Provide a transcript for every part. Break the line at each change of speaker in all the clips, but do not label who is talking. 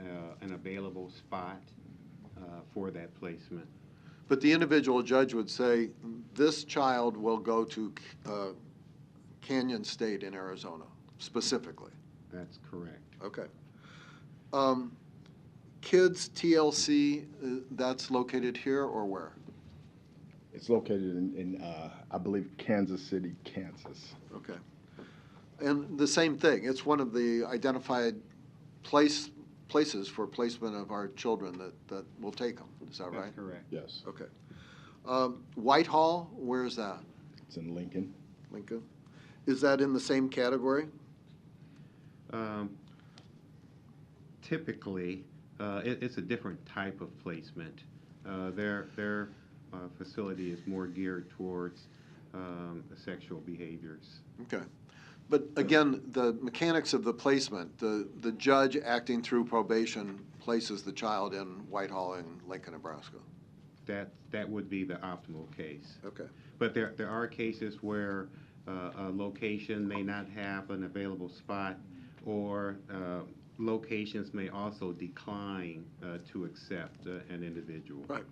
uh, available spot uh, for that placement.
But the individual judge would say, this child will go to uh, Canyon State in Arizona specifically.
That's correct.
Okay. Um, Kids TLC, uh, that's located here or where?
It's located in, in uh, I believe, Kansas City, Kansas.
Okay. And the same thing, it's one of the identified place, places for placement of our children that, that will take them, is that right?
That's correct.
Yes,
Okay. Um, Whitehall, where is that?
it's in Lincoln.
Lincoln? Is that in the same category?
Um, Typically, uh, it, it's a different type of placement. Uh, Their, their uh, facility is more geared towards um, sexual behaviors.
Okay. But again, the mechanics of the placement, the, the judge acting through probation places the child in Whitehall in Lincoln, Nebraska.
That, that would be the optimal case.
Okay,
But there, there are cases where uh, a location may not have an available spot, or uh, locations may also decline uh, to accept uh, an individual.
right.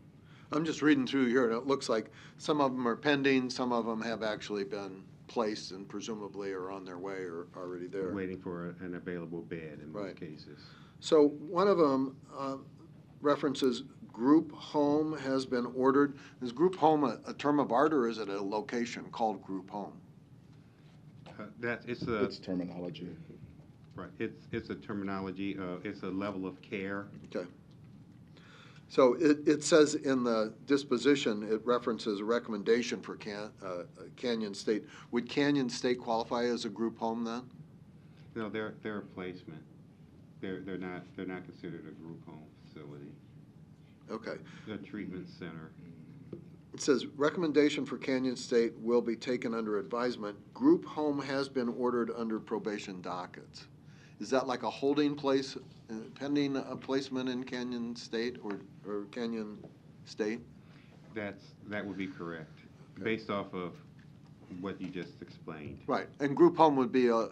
I'm just reading through here, and it looks like some of them are pending, some of them have actually been placed and presumably are on their way or already there.
Waiting for an available bed in
Right.
most cases.
So one of them uh, references group home has been ordered. Is group home a, a term of art or is it a location called group home?
Uh, That, it's a,
It's terminology.
right, it's, it's a terminology, uh, it's a level of care.
Okay. So it, it says in the disposition, it references a recommendation for Can, uh, Canyon State. Would Canyon State qualify as a group home then?
No, they're, they're a placement. They're, they're not, they're not considered a group home facility.
Okay.
They're a treatment center.
It says recommendation for Canyon State will be taken under advisement. Group home has been ordered under probation dockets. Is that like a holding place uh, pending a placement in Canyon State or, or Canyon State?
That's, that would be correct,
Okay.
based off of what you just explained.
Right, and group home would be a, a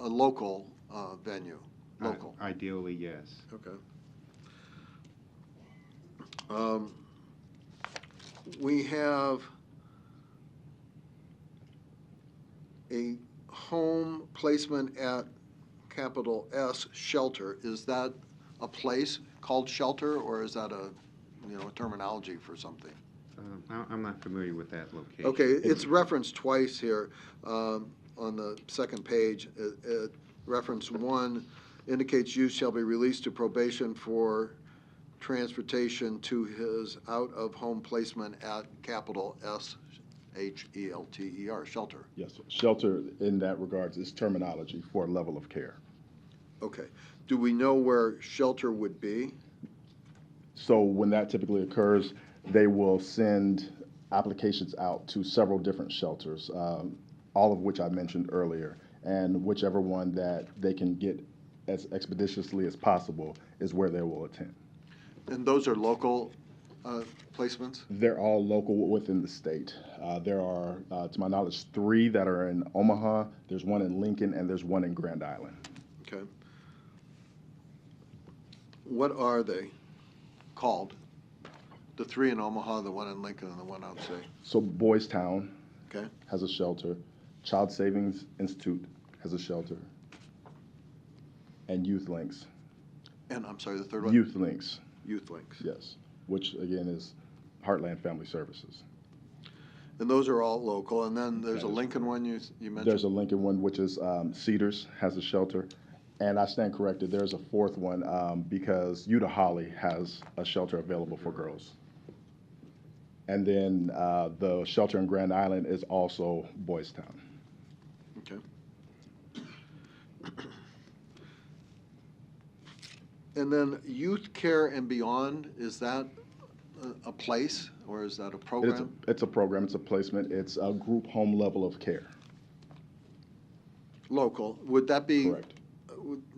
a local uh, venue,
I-
local.
Ideally, yes.
Okay. Um, We have a home placement at capital S shelter. Is that a place called shelter, or is that a, you know, a terminology for something?
Um, I- I'm not familiar with that location.
Okay, it's referenced twice here um, on the second page. It- it- Reference one indicates youth shall be released to probation for transportation to his out-of-home placement at capital E S-H-E-L-T-E-R, shelter.
Yes, shelter in that regards is terminology for level of care.
Okay. Do we know where shelter would be?
So when that typically occurs, they will send applications out to several different shelters, um, all of which I mentioned earlier. And whichever one that they can get as expeditiously as possible is where they will attend.
And those are local uh, placements?
They're all local within the state. Uh, there are, uh, to my knowledge, three that are in Omaha, there's one in Lincoln, and there's one in Grand Island.
Okay. What are they called? The three in Omaha, the one in Lincoln, and the one outside,
So Boys Town
okay?
has a shelter, Child Savings Institute has a shelter, and Youth Links.
And I'm sorry, the third one?
Youth Links,
Youth Links.
yes, which again is Heartland Family Services.
And those are all local, and then there's a
That is-
Lincoln one you, you
There's
mentioned?
a Lincoln one, which is um, Cedars has a shelter, and I stand corrected. There's a fourth one um, because Utah Holly has a shelter available for girls. And then uh, the shelter in Grand Island is also Boys Town.
Okay. And then Youth Care and Beyond, is that a, a place, or is that a
It's a,
program?
it's a program. It's a placement. It's a group home level of care.
Local, would that be?
Correct.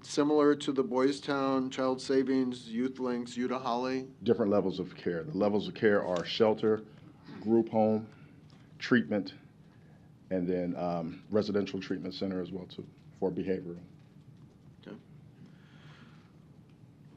similar to the Boys Town, Child Savings, Youth Links, Utah Holly.
Different levels of care. The levels of care are shelter, group home, treatment, and then um, residential treatment center as well too for behavioral.